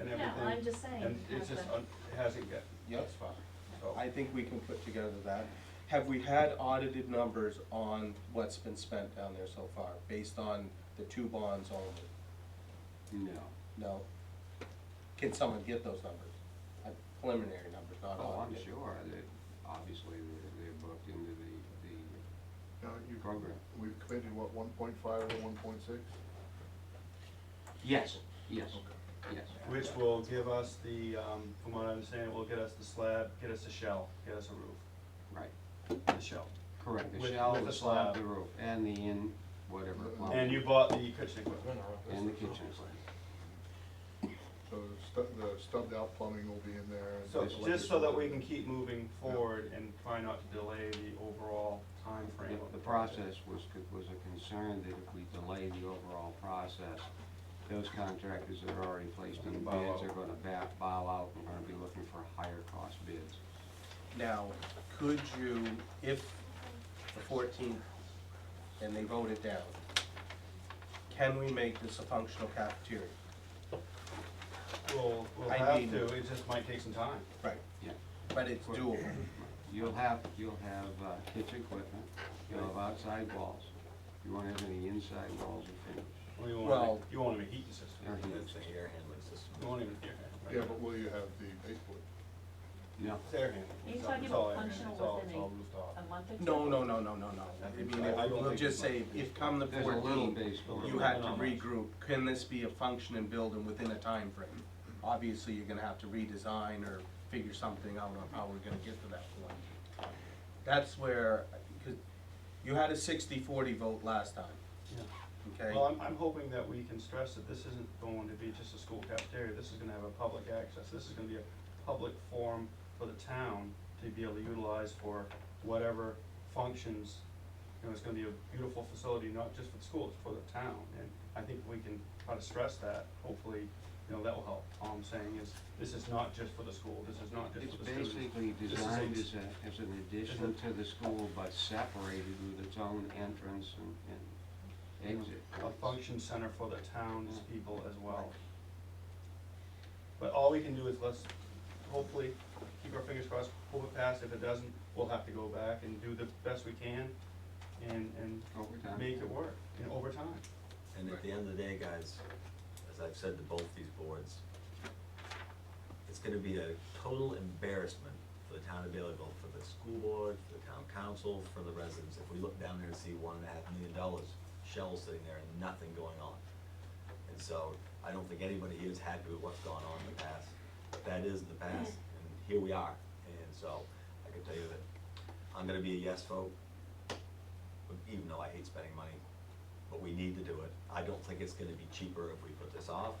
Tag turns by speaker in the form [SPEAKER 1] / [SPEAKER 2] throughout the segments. [SPEAKER 1] everything.
[SPEAKER 2] I'm just saying,
[SPEAKER 1] And it's
[SPEAKER 2] have
[SPEAKER 1] just,
[SPEAKER 2] the-
[SPEAKER 1] un- it hasn't got,
[SPEAKER 3] Yep.
[SPEAKER 1] that's fine, so.
[SPEAKER 3] I think we can put together that. Have we had audited numbers on what's been spent down there so far, based on the two bonds only?
[SPEAKER 4] No.
[SPEAKER 3] No? Can someone get those numbers? Uh, Preliminary numbers, not
[SPEAKER 4] Oh, I'm
[SPEAKER 3] audited.
[SPEAKER 4] sure, that, obviously, they're, they're booked into the, the
[SPEAKER 5] Now, you,
[SPEAKER 4] program.
[SPEAKER 5] we've committed, what, one point five or one point six?
[SPEAKER 4] Yes, yes, yes.
[SPEAKER 1] Which will give us the, um, from what I understand, will get us the slab, get us a shell, get us a roof,
[SPEAKER 4] Right,
[SPEAKER 1] the shell.
[SPEAKER 4] correct, the
[SPEAKER 1] With-
[SPEAKER 4] shell,
[SPEAKER 1] with
[SPEAKER 4] the
[SPEAKER 1] the slab.
[SPEAKER 4] slab, the roof, and the in, whatever. plumbing,
[SPEAKER 1] And you bought the kitchen equipment.
[SPEAKER 4] And the kitchen.
[SPEAKER 5] So the stu- the stubbed out plumbing will be in there. and
[SPEAKER 1] So,
[SPEAKER 5] the
[SPEAKER 1] just so that we can
[SPEAKER 5] electrical.
[SPEAKER 1] keep moving forward and try not to delay the overall time frame
[SPEAKER 4] The-
[SPEAKER 1] of
[SPEAKER 4] The
[SPEAKER 1] the
[SPEAKER 4] process was, co- was a concern that if we delay the overall process, those contractors that are already placed in
[SPEAKER 1] Bow out.
[SPEAKER 4] bids are gonna ba- bow out and gonna be looking for higher cost bids.
[SPEAKER 3] Now, could you, if the fourteenth, and they vote it down, can we make this a functional cafeteria?
[SPEAKER 1] We'll, we'll
[SPEAKER 3] I
[SPEAKER 1] have
[SPEAKER 3] mean-
[SPEAKER 1] to, it just might take some time.
[SPEAKER 3] Right.
[SPEAKER 4] Yeah.
[SPEAKER 3] But it's doable.
[SPEAKER 4] You'll have, you'll have uh, kitchen equipment, you'll have outside walls, you won't have any inside walls or finish.
[SPEAKER 1] We won't have-
[SPEAKER 3] Well-
[SPEAKER 1] You won't have a heating system.
[SPEAKER 4] Air heating
[SPEAKER 1] That's the air handling system. You won't even,
[SPEAKER 5] Yeah,
[SPEAKER 1] yeah.
[SPEAKER 5] but will you have the baseboard?
[SPEAKER 4] No,
[SPEAKER 1] It's air handling.
[SPEAKER 2] Are you
[SPEAKER 1] It's all-
[SPEAKER 2] talking
[SPEAKER 1] it's all
[SPEAKER 2] about
[SPEAKER 1] air handling.
[SPEAKER 2] functional
[SPEAKER 1] It's all-
[SPEAKER 2] within
[SPEAKER 1] it's
[SPEAKER 2] a-
[SPEAKER 1] all rooftop.
[SPEAKER 2] A month or two?
[SPEAKER 3] No, no, no, no, no, no. I mean,
[SPEAKER 1] I don't
[SPEAKER 3] we'll
[SPEAKER 1] think
[SPEAKER 3] just
[SPEAKER 1] we
[SPEAKER 3] say,
[SPEAKER 1] might.
[SPEAKER 3] if come the
[SPEAKER 4] there's a little
[SPEAKER 3] fourteenth,
[SPEAKER 4] baseboard.
[SPEAKER 3] you had to regroup, can this be a functioning building within a time frame? Obviously, you're gonna have to redesign or figure something out on how we're gonna get to that point. That's where, because you had a 60-40 vote last time,
[SPEAKER 1] Yeah.
[SPEAKER 3] okay?
[SPEAKER 1] Well, I'm, I'm hoping that we can stress that this isn't going to be just a school cafeteria, this is gonna have a public access, this is gonna be a public forum for the town to be able to utilize for whatever functions. You know, it's gonna be a beautiful facility, not just for the school, it's for the town, and I think we can try to stress that, hopefully, you know, that will help. All I'm saying is, this is not just for the school, this is not just
[SPEAKER 4] It's
[SPEAKER 1] for the students.
[SPEAKER 4] basically
[SPEAKER 1] This is
[SPEAKER 4] designed
[SPEAKER 1] a-
[SPEAKER 4] as a, as an addition to the school, but separated with its own entrance and, and exit.
[SPEAKER 1] a function center for the town's people as well. But all we can do is let's hopefully keep our fingers crossed, hope it passes. If it doesn't, we'll have to go back and do the best we can and, and
[SPEAKER 4] Over time.
[SPEAKER 1] make it work, and over time.
[SPEAKER 6] And at the end of the day, guys, as I've said to both these boards, it's gonna be a total embarrassment for the town of Baileyville, for the school board, for the town council, for the residents, if we look down there and see one and a half million dollars shells sitting there and nothing going on. And so, I don't think anybody here is happy with what's gone on in the past, but that is the past, and here we are. And so, I can tell you that I'm gonna be a yes vote, even though I hate spending money, but we need to do it. I don't think it's gonna be cheaper if we put this off.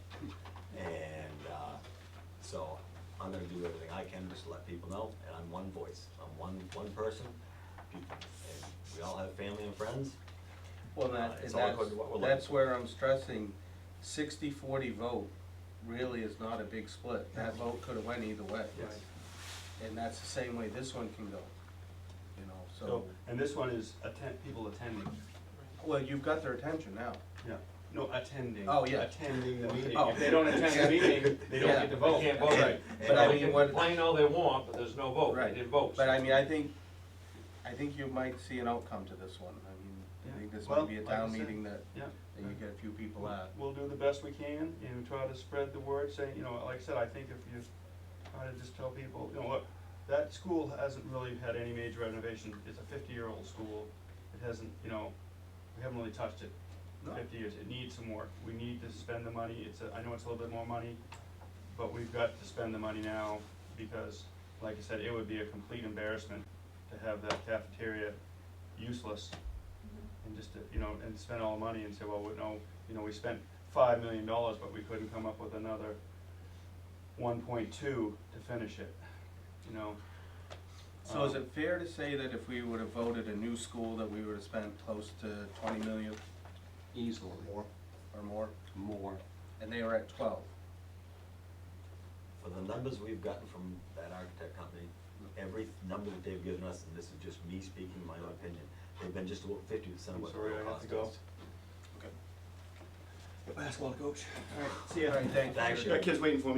[SPEAKER 6] And, uh, so I'm gonna do everything I can just to let people know, and I'm one voice, I'm one, one person. People, and we all have family and friends,
[SPEAKER 3] Well, that, and
[SPEAKER 6] It's all
[SPEAKER 3] that's,
[SPEAKER 6] according to what we're
[SPEAKER 3] that's
[SPEAKER 6] looking
[SPEAKER 3] where I'm stressing, 60-40 vote really is not a big split. That vote could've went either way.
[SPEAKER 6] yes.
[SPEAKER 3] And that's the same way this one can go, you know,
[SPEAKER 1] So,
[SPEAKER 3] so,
[SPEAKER 1] and this one is attend, people attending,
[SPEAKER 3] well, you've got their attention now.
[SPEAKER 1] yeah, no, attending.
[SPEAKER 3] Oh, yeah.
[SPEAKER 1] Attending the meeting.
[SPEAKER 3] Oh.
[SPEAKER 1] If they don't attend the meeting, they don't
[SPEAKER 3] Yeah.
[SPEAKER 1] get to vote.
[SPEAKER 7] They can't vote.
[SPEAKER 1] Right.
[SPEAKER 3] But I mean, what,
[SPEAKER 7] complain all they want, but there's no vote,
[SPEAKER 3] Right.
[SPEAKER 7] they didn't vote.
[SPEAKER 3] but I mean, I think, I think you might see an outcome to this one. I mean, I think this
[SPEAKER 1] Well,
[SPEAKER 3] might be a
[SPEAKER 1] like I
[SPEAKER 3] town
[SPEAKER 1] said,
[SPEAKER 3] meeting that,
[SPEAKER 1] Yeah.
[SPEAKER 3] that you get a few people
[SPEAKER 1] We'll-
[SPEAKER 3] at.
[SPEAKER 1] We'll do the best we can and try to spread the word, saying, you know, like I said, I think if you try to just tell people, you know, look, that school hasn't really had any major renovation, it's a fifty-year-old school, it hasn't, you know, we haven't really touched it in
[SPEAKER 3] No.
[SPEAKER 1] fifty years, it needs some work, we need to spend the money, it's, a- I know it's a little bit more money, but we've got to spend the money now, because, like I said, it would be a complete embarrassment to have that cafeteria useless and just, to, you know, and spend all the money and say, well, we know, you know, we spent five million dollars, but we couldn't come up with another one point two to finish it, you know?
[SPEAKER 3] So is
[SPEAKER 1] Um,
[SPEAKER 3] it fair to say that if we would've voted a new school, that we would've spent close to twenty million
[SPEAKER 4] Easily,
[SPEAKER 5] More.
[SPEAKER 3] or more,
[SPEAKER 4] more.
[SPEAKER 3] and they were at twelve?
[SPEAKER 6] For the numbers we've gotten from that architect company, every number that they've given us, and this is just me speaking my own opinion, they've been just about fifty percent of
[SPEAKER 1] Um, I'm
[SPEAKER 6] what the
[SPEAKER 1] sorry,
[SPEAKER 6] real
[SPEAKER 1] I have
[SPEAKER 6] cost
[SPEAKER 1] to go.
[SPEAKER 6] is.
[SPEAKER 1] Basketball coach. Alright, see
[SPEAKER 3] All
[SPEAKER 1] ya.
[SPEAKER 3] right, thank you.
[SPEAKER 6] Thanks,
[SPEAKER 1] Got kids waiting for me.